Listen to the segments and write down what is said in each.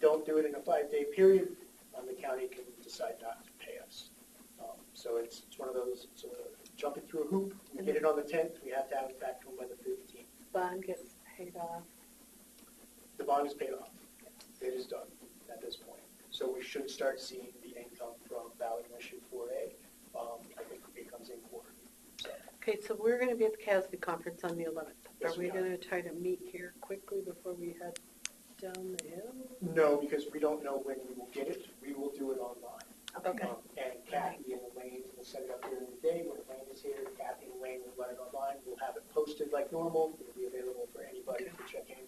don't do it in a five-day period, um, the county can decide not to pay us. Um, So it's, it's one of those, it's a jumping through a hoop, we get it on the tenth, we have to have it back to them by the fifteenth. Bond gets paid off. The bond is paid off, it is done at this point. So we should start seeing the income from ballot initiative four A, um, I think it comes in quarter. So, Okay, so we're gonna be at the CASB conference on the eleventh. Yes, Are we we are. gonna try to meet here quickly before we head down the hill? No, because we don't know when we will get it, we will do it online. Okay. Um, And Kathy and Elaine will set it up during the day, when Elaine is here, Kathy and Elaine will run it online, we'll have it posted like normal, it'll be available for anybody to check in,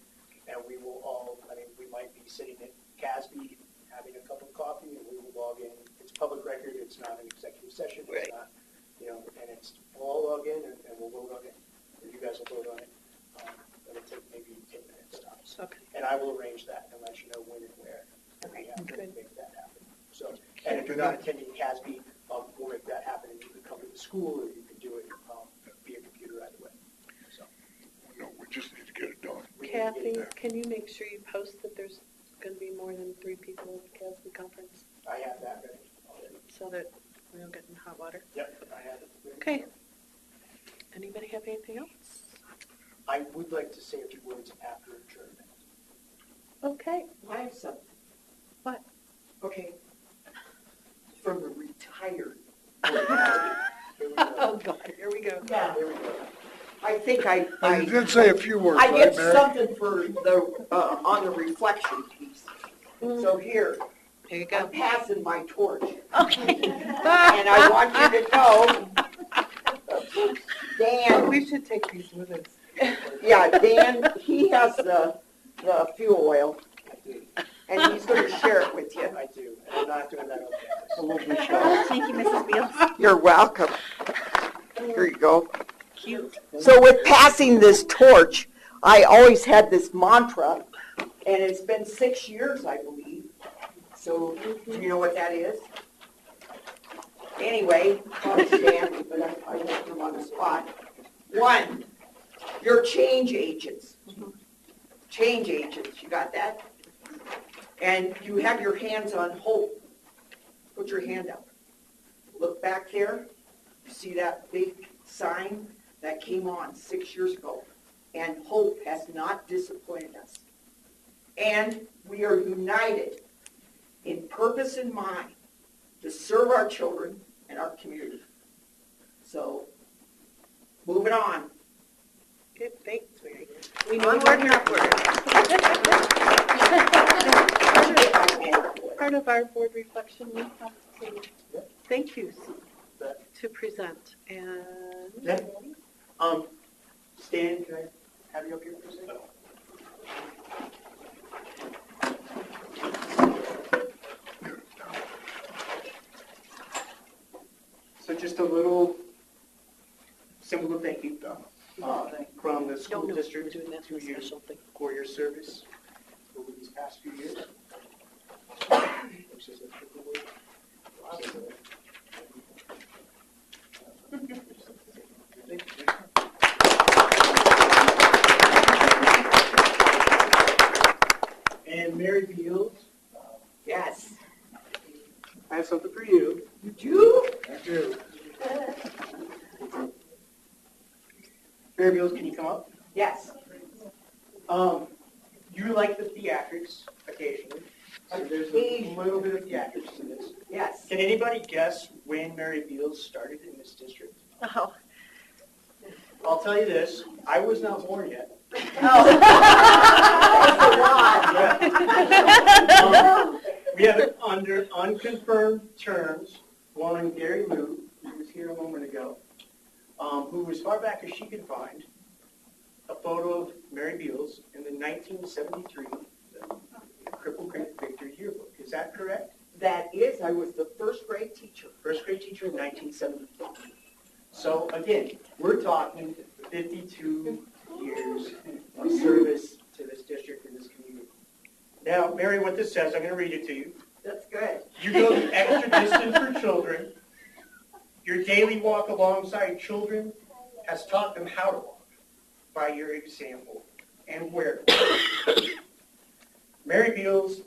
and we will all, I mean, we might be sitting at Casby, having a cup of coffee, and we will log in, it's public record, it's not an executive session, it's Right. not, you know, and it's, we'll all log in, and and we'll vote on it, or you guys will vote on it, um, it'll take maybe ten minutes tops. Okay. And I will arrange that and let you know when and where. and we Okay, have to good. Make that happen. So, and if you're not attending CASB, um, we'll make that happen. And you can come to the school or you can do it, um, via computer either way. So, No, we just need to get it done. we need to get Kathy, it there. can you make sure you post that there's gonna be more than three people at the CASB conference? I have that ready already. So that we don't get in hot water? Yep, I have it. ready. Okay. Anybody have anything else? I would like to say a few words after adjournment. Okay, I have something. what? Okay. From the retired. Here we go. Oh, God, here we go. Yeah, Here we go. I think I, And you I, did say a few words, I right, did Mary? something for the, uh, on the reflection piece. So here, Here you I'm Mm. go. passing my torch, Okay. and I want you to know, Dan, Oh, We should take these with us. yeah, Dan, he has the, the fuel oil, I do. and he's gonna share it with you. I do. And I'm not doing that on A purpose. little bit shy. Thank you, Mrs. Beals. You're welcome. Here you go. Cute. So with passing this torch, I always had this mantra, and it's been six years, I believe. So, do you know what that is? Anyway, I'll stand, but I, I won't come on the spot. One, your change agents. Change agents, you got that? And you have your hands on hope. Put your hand out. Look back there. You see that big sign? that came on six years ago, and hope has not disappointed us. And we are united in purpose and mind to serve our children and our community. So, moving on. Good, thanks, Mary. We need Onward and Part of our board reflection, we have to, thank yous But, to present and. Yeah. Um, Stan, can I have you up here for a second? so just a little symbol of thank you Uh, From the No, school no, we're district doing that to for a you special thing. for your service over these past few years. Which is a triple word. And Mary Beals, Yes. I have something for you. You do? I do. Mary Beals, can you come up? Yes. Um, you like the theatrics occasionally, so there's a little bit of theatrics to this. Yes. Can anybody guess when Mary Beals started in this district? Oh. I'll tell you this, I was not born yet. Oh. Um, We have it under unconfirmed terms, one on Gary Moo, who was here a moment ago, um, who as far back as she could find, a photo of Mary Beals in the 1973 Cripple Creek Victory yearbook. Is that correct? That is, I was the first grade teacher. first grade teacher in 1974. So again, we're talking 52 years of service to this district and this community. Now, Mary, what this says, I'm going to read it to you. That's good. You go the extra distance for children. Your daily walk alongside children has taught them how to walk by your example and where. to walk. Mary Beals